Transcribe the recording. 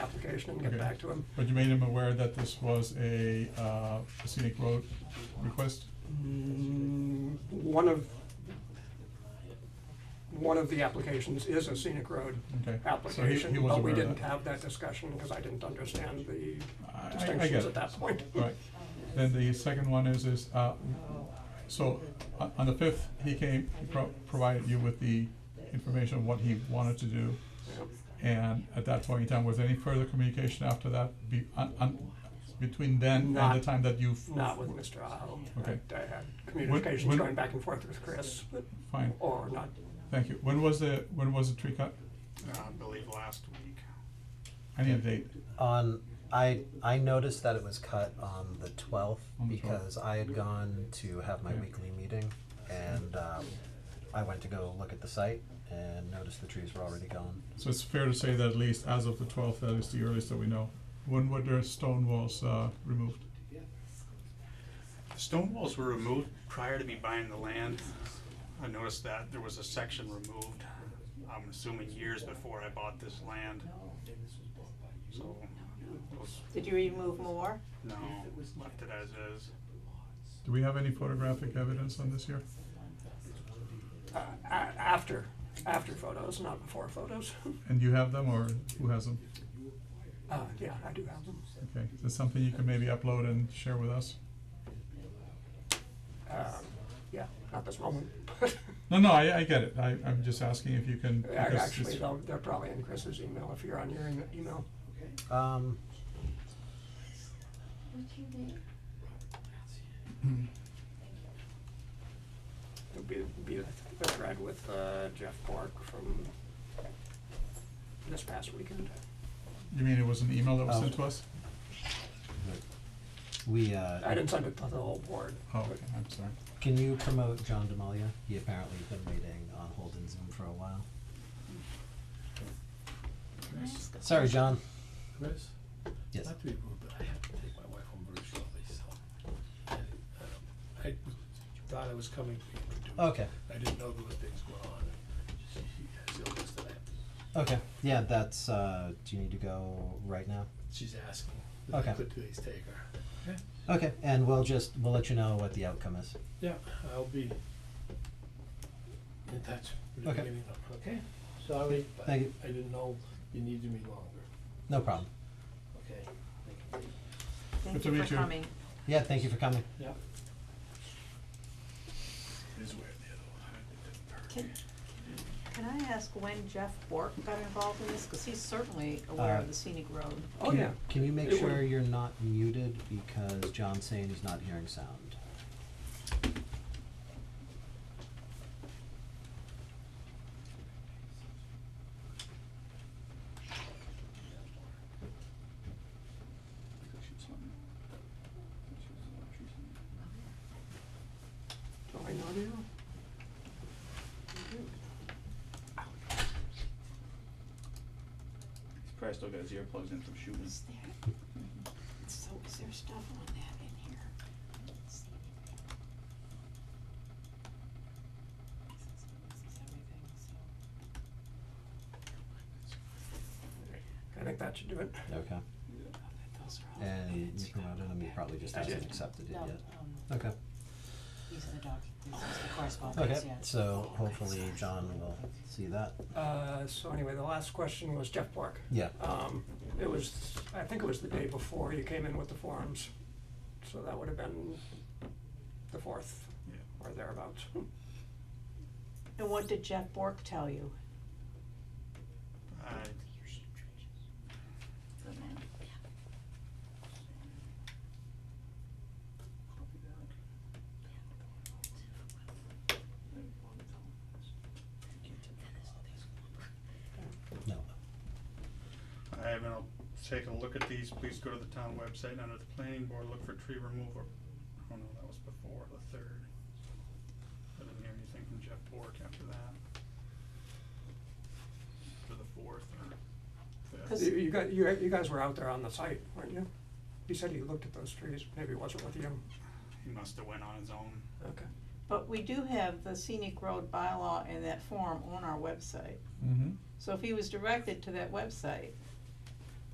clarification and get Okay. back to him. But you made him aware that this was a, uh, a scenic road request? Mm, One of, one of the applications is a scenic road Okay. So he, application, he was but we aware of didn't that. have that discussion because I didn't understand the I- I- I get distinctions it. at that point. Right. Then the second one is, is, uh, so, uh, on the fifth, he came, he pro- provided you with the information of what he wanted to do. Yeah. And at that point in time, was there any further communication after that, be, on, on, between then and the Not- time that you? Not with Mr. Aho. Okay. I had communications when- going back and forth with Chris, but- Fine, or not. thank you. When was the, when was the tree cut? Uh, I believe last week. I need a date. On, I, I noticed that it was cut on the twelfth On the 12th. because I had gone to have my Yeah. weekly meeting and, um, I went to go look at the site and noticed the trees were already gone. So it's fair to say that at least as of the twelfth, that is the earliest that we know. When were the stone walls, uh, removed? The Stone walls were removed prior to me buying the land. I noticed that there was a section removed, I'm assuming years before I bought this land. So, it was, Did you remove more? no, left it as is. Do we have any photographic evidence on this here? Uh, a- after, after photos, not before photos. And you have them or who has them? Uh, yeah, I do have them. Okay, is this something you can maybe upload and share with us? Uh, yeah, not this moment. No, no, I, I get it. I, I'm just asking if you can. Yeah, because Actually, it's- though, they're probably in Chris's email if you're on your em- email. Um, It'll be, be the the thread with uh, Jeff Park from this past weekend. You mean it was an email that was Oh. sent to us? we, I uh, didn't send it to the whole board. Oh, but- okay, I'm sorry. can you promote John Demalia? He apparently has been waiting on hold in Zoom for a while. Sorry, John. Chris? Yes. Not to be rude, but I have to take my wife home very shortly, so. and, um, I thought I was coming to introduce. Okay, I didn't know there were things going on. She has illness that I have to, okay. Yeah, that's, uh, do you need to go right now? she's asking that I Okay. could please take her. Okay, and we'll just, we'll let you know what the outcome is. Yeah, I'll be in touch with the Okay. meeting, okay? Sorry, but I Thank you. didn't know you needed me longer, No problem. okay? Good Thank to you meet for you. coming. Yeah, thank you for coming. Yeah. It is weird, the other one, it didn't hurt. Can can I ask when Jeff Bork got involved in this? Because he's certainly aware Uh, of the scenic road. Oh, Can- yeah. Can you make It sure would- you're not muted because John's saying he's not hearing sound? Do I not know? He's probably still got his earplugs in from shooting. Is there, Mm-hmm. so is there stuff on that in here? Is this everything, I so? think that should do it. Okay. Those are all And edits. you promoted him, he probably just I hasn't did. accepted it No, yet. um, Okay, these are the doc, these are the okay, correspondence, yeah. so Okay, hopefully sorry. John will see that. Uh, so anyway, the last question was Jeff Park. Yeah, Um, it was, I think it was the day before you came in with the forms, so that would have been the fourth Yeah. or thereabouts. And what did Jeff Bork tell you? I no. I haven't, I'll take a look at these, please go to the town website, and under the planning board, look for tree removal. Oh no, that was before the third. I didn't hear anything from Jeff Bork after that. For the fourth or Cause- fifth. You, you got, you, you guys were out there on the site, weren't you? You said you looked at those trees, maybe it wasn't with you. He must have went on his own. Okay. But we do have the scenic road bylaw in that form on our website. Mm-hmm. So if he was directed to that website,